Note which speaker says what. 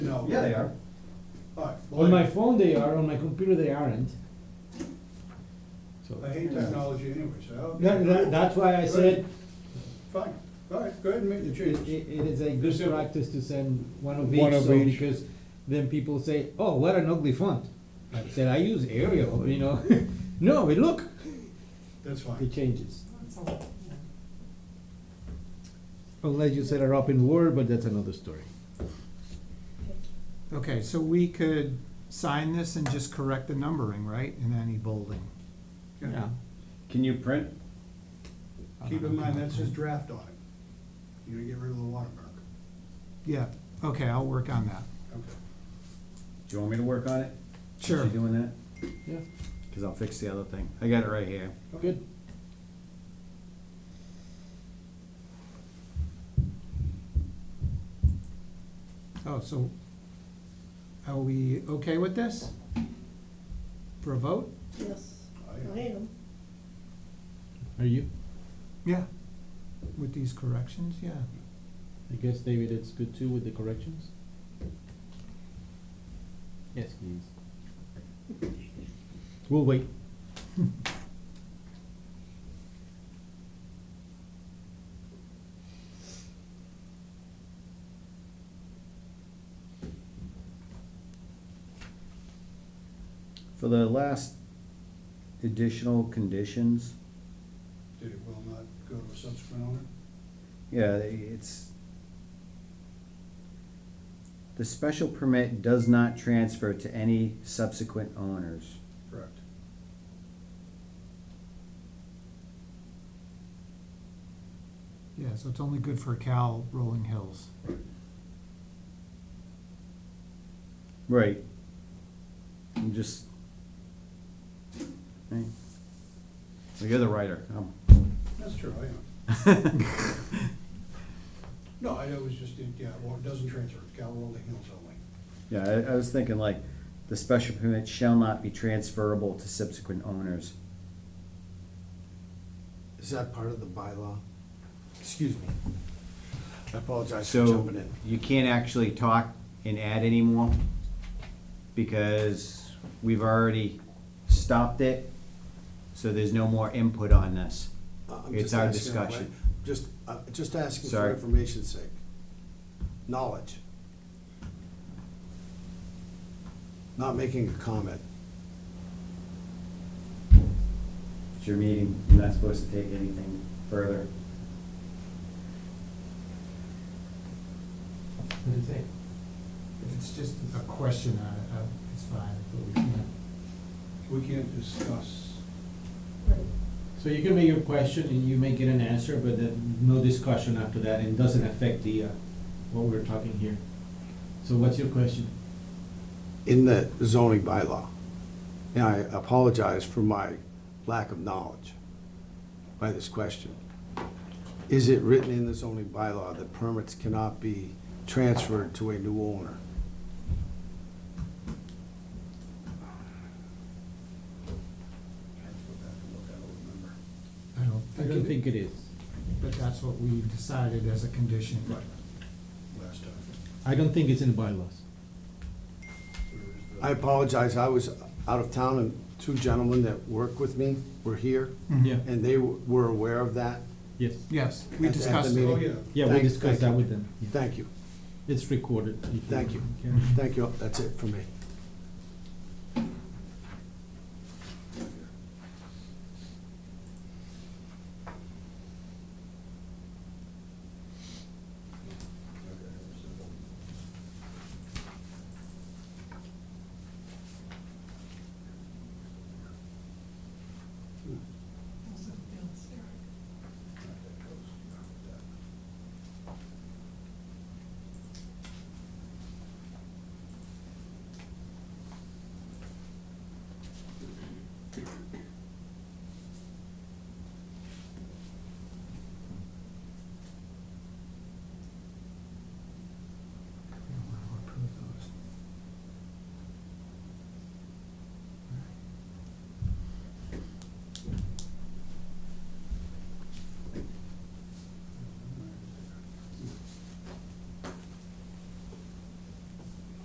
Speaker 1: No.
Speaker 2: Yeah, they are.
Speaker 1: All right, well,
Speaker 3: On my phone they are, on my computer they aren't. So,
Speaker 1: I hate technology anyway, so. I'll-
Speaker 3: that, that- that's why I said,
Speaker 1: Fine, all right, go ahead and make the
Speaker 3: it,
Speaker 1: change.
Speaker 3: it it is a good
Speaker 1: Simple.
Speaker 3: practice to send one of
Speaker 4: One
Speaker 3: each,
Speaker 4: of
Speaker 3: so,
Speaker 4: each.
Speaker 3: because then people say, oh, what an ugly font. I said, I use Arial, you know, no, but look,
Speaker 1: That's
Speaker 3: it
Speaker 1: fine.
Speaker 3: changes.
Speaker 5: That's all, yeah.
Speaker 3: Unless you set it up in Word, but that's another story.
Speaker 6: Okay, so we could sign this and just correct the numbering, right, in any bolding?
Speaker 1: Yeah.
Speaker 2: Can you print?
Speaker 1: Keep in mind, that's just draft on it. You're gonna get rid of the watermark.
Speaker 6: Yeah, okay, I'll work on that.
Speaker 1: Okay.
Speaker 2: Do you want me to work on it?
Speaker 6: Sure.
Speaker 2: You doing that?
Speaker 3: Yeah,
Speaker 2: Cause I'll fix the other thing. I got it right here.
Speaker 3: good.
Speaker 6: Oh, so are we okay with this? For a vote?
Speaker 5: Yes,
Speaker 1: I-
Speaker 5: I am.
Speaker 3: Are you?
Speaker 6: Yeah. With these corrections, yeah.
Speaker 3: I guess, David, it's good too with the corrections? Yes, please. We'll wait.
Speaker 2: For the last additional conditions,
Speaker 1: Did it will not go to a subsequent owner?
Speaker 2: yeah, it's. The special permit does not transfer to any subsequent owners.
Speaker 1: Correct.
Speaker 6: Yeah, so it's only good for Cal Rolling Hills.
Speaker 2: Right. I'm just. Right. So you're the writer, I'm-
Speaker 1: That's true, I am. No, I it was just, yeah, well, it doesn't transfer, it's Cal Rolling Hills only.
Speaker 2: Yeah, I, I was thinking like, the special permit shall not be transferable to subsequent owners.
Speaker 4: Is that part of the bylaw? Excuse me. I apologize for
Speaker 2: So
Speaker 4: jumping in.
Speaker 2: you can't actually talk and add anymore because we've already stopped it. So there's no more input on this.
Speaker 4: Uh, I'm
Speaker 2: It's
Speaker 4: just
Speaker 2: our
Speaker 4: asking a que-
Speaker 2: discussion.
Speaker 4: Just, uh, just asking for
Speaker 2: Sorry.
Speaker 4: information's sake. Knowledge. Not making a comment.
Speaker 2: It's your meeting. You're not supposed to take anything further.
Speaker 6: What do you think? If it's just a question on it, uh, it's fine, but we can't.
Speaker 1: We can't discuss,
Speaker 5: Right.
Speaker 3: So you can make your question and you may get an answer, but then no discussion after that and doesn't affect the, uh, what we're talking here. So what's your question?
Speaker 4: in the zoning bylaw. And I apologize for my lack of knowledge by this question. Is it written in the zoning bylaw that permits cannot be transferred to a new owner?
Speaker 1: I have to go back and look, I don't remember.
Speaker 6: I don't
Speaker 3: I
Speaker 6: think it
Speaker 3: don't think it is.
Speaker 6: But that's what we decided as a condition.
Speaker 1: Last time,
Speaker 3: I don't think it's in the bylaws.
Speaker 1: where is the?
Speaker 4: I apologize, I was out of town and two gentlemen that work with me were here,
Speaker 3: Yeah,
Speaker 4: and they were aware of that.
Speaker 3: yes.
Speaker 6: Mm-hmm. Yes, we
Speaker 4: At the- at the
Speaker 6: discussed
Speaker 1: Oh,
Speaker 6: it.
Speaker 1: yeah,
Speaker 3: Yeah, we
Speaker 4: Thank-
Speaker 3: discussed
Speaker 4: thank
Speaker 3: that
Speaker 4: you.
Speaker 3: with them. Yeah.
Speaker 4: Thank you,
Speaker 3: It's recorded. if
Speaker 4: Thank you.
Speaker 3: care.
Speaker 4: thank you, that's it for me.